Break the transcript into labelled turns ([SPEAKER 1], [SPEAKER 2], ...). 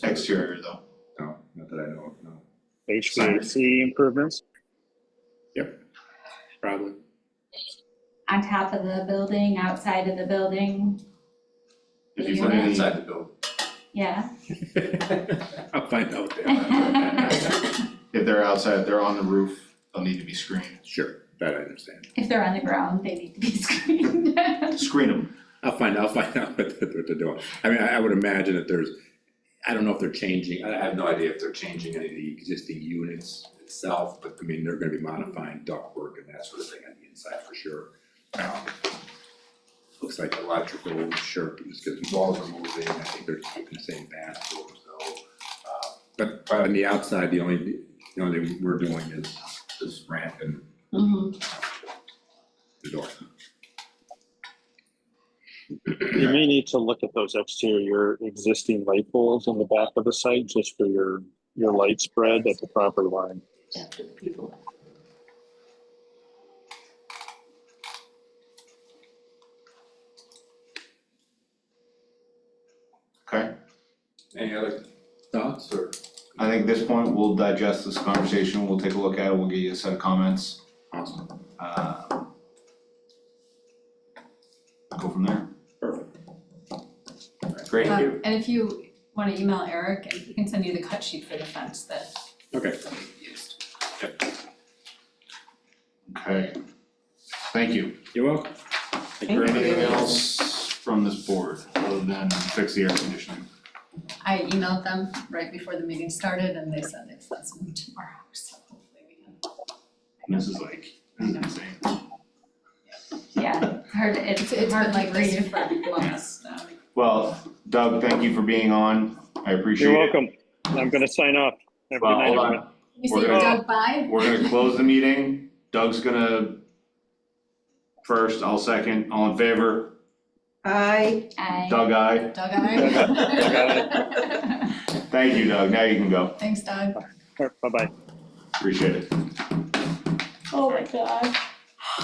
[SPEAKER 1] exterior though.
[SPEAKER 2] No, not that I know of, no.
[SPEAKER 3] HVAC improvements.
[SPEAKER 4] probably.
[SPEAKER 5] on top of the building, outside of the building,
[SPEAKER 1] If you put it inside the building,
[SPEAKER 5] yeah.
[SPEAKER 4] I'll find out
[SPEAKER 5] If
[SPEAKER 1] if they're outside, if they're on the roof, they'll need to be screened.
[SPEAKER 4] Sure, that I understand.
[SPEAKER 5] they're on the ground, they need to be screened.
[SPEAKER 1] Screen them.
[SPEAKER 4] I'll find, I'll find out what they're, what they're doing. I mean, I, I would imagine that there's, I don't know if they're changing, I I have no idea if they're changing any of the existing units itself, but I mean, they're gonna be modifying ductwork and that sort of thing on the inside for sure. Um, Looks like electrical, sure, because walls are moving, I think they're keeping the same bath doors though. Uh, But, but on the outside, the only, the only thing we're doing is, is ramp and
[SPEAKER 6] Mm-hmm.
[SPEAKER 5] Mhm.
[SPEAKER 4] the door.
[SPEAKER 3] You may need to look at those exterior existing light poles in the back of the site just for your, your light spread at the property line.
[SPEAKER 1] Okay,
[SPEAKER 4] Any other thoughts or?
[SPEAKER 1] I think at this point, we'll digest this conversation, we'll take a look at it, we'll get you a set of comments,
[SPEAKER 4] Awesome,
[SPEAKER 1] uh. Go from there.
[SPEAKER 4] perfect.
[SPEAKER 1] Great.
[SPEAKER 6] Um, And if you wanna email Eric, he can send you the cut sheet for the fence that
[SPEAKER 4] Okay,
[SPEAKER 6] we used.
[SPEAKER 1] Okay. Thank you.
[SPEAKER 4] you're welcome.
[SPEAKER 6] Thank you.
[SPEAKER 1] Anything else from this board other than fix the air conditioning?
[SPEAKER 6] I emailed them right before the meeting started and they said it's that's me tomorrow, so hopefully we can.
[SPEAKER 1] And this is like, this is insane.
[SPEAKER 5] Yeah, it's hard, to-
[SPEAKER 6] It's it's
[SPEAKER 5] it's
[SPEAKER 6] been
[SPEAKER 5] hard to
[SPEAKER 6] like this
[SPEAKER 5] read.
[SPEAKER 6] for months now.
[SPEAKER 1] Well, Doug, thank you for being on, I appreciate it.
[SPEAKER 3] You're welcome. I'm gonna sign off. Have a good
[SPEAKER 1] Well,
[SPEAKER 3] night,
[SPEAKER 1] hold
[SPEAKER 3] everyone.
[SPEAKER 1] on,
[SPEAKER 6] You
[SPEAKER 1] We're
[SPEAKER 6] see
[SPEAKER 1] gonna-
[SPEAKER 6] Doug by?
[SPEAKER 1] We're gonna close the meeting, Doug's gonna first, I'll second, all in favor,
[SPEAKER 7] I,
[SPEAKER 5] I-
[SPEAKER 1] Doug, aye.
[SPEAKER 6] Doug
[SPEAKER 3] Doug,
[SPEAKER 6] I.
[SPEAKER 1] Thank you, Doug, now you can go,
[SPEAKER 6] Thanks, Doug.
[SPEAKER 3] Bye-bye.
[SPEAKER 1] appreciate it.
[SPEAKER 7] oh my gosh.